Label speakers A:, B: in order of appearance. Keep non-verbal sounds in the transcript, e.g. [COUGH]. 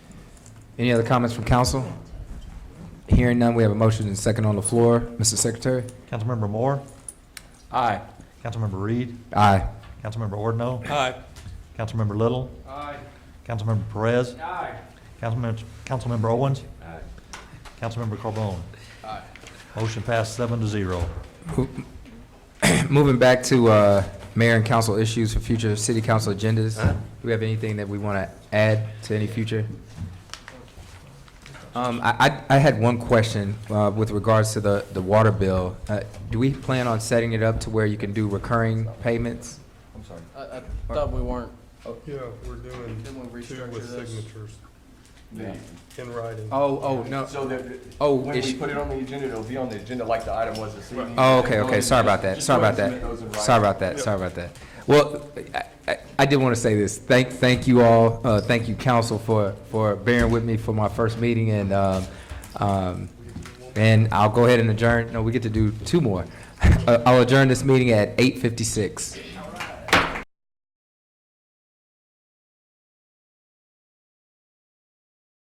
A: Any other comments from council? Hearing none, we have a motion and second on the floor. Mr. Secretary?
B: Councilmember Moore,
A: Aye.
B: Councilmember Reed,
A: Aye.
B: Councilmember Ordno,
C: Aye.
B: Councilmember Little. Aye. Councilmember Perez. Aye. Councilmember, Councilmember Owens. Aye. Councilmember Carbone. Aye. Motion passed seven to zero.
A: [CLEARS THROAT] Moving back to uh, mayor and council issues for future city council agendas, do we have anything that we want to add to any future? Um, I I I had one question uh, with regards to the the water bill. Uh, Do we plan on setting it up to where you can do recurring payments?
D: I, I thought we weren't,
E: Yeah, we're doing
D: didn't we
E: two
D: restructure
E: with
D: this?
E: signatures in writing.
A: Oh, oh, no.
F: So that,
A: Oh,
F: when
A: ish-
F: we put it on the agenda, it'll be on the agenda like the item was this evening.
A: Oh, okay,
F: Just go
A: okay,
F: ahead-
A: sorry about that,
F: just
A: sorry
F: go
A: about
F: ahead and
A: that,
F: submit those in
A: sorry
F: writing.
A: about that, sorry about that. Well, I- I, I did want to say this, thank, thank you all, uh, thank you council for, for bearing with me for my first meeting and, um, um, and [LAUGHS] I'll go ahead and adjourn, no, we get to do two more. Uh, I'll adjourn this meeting at eight fifty-six.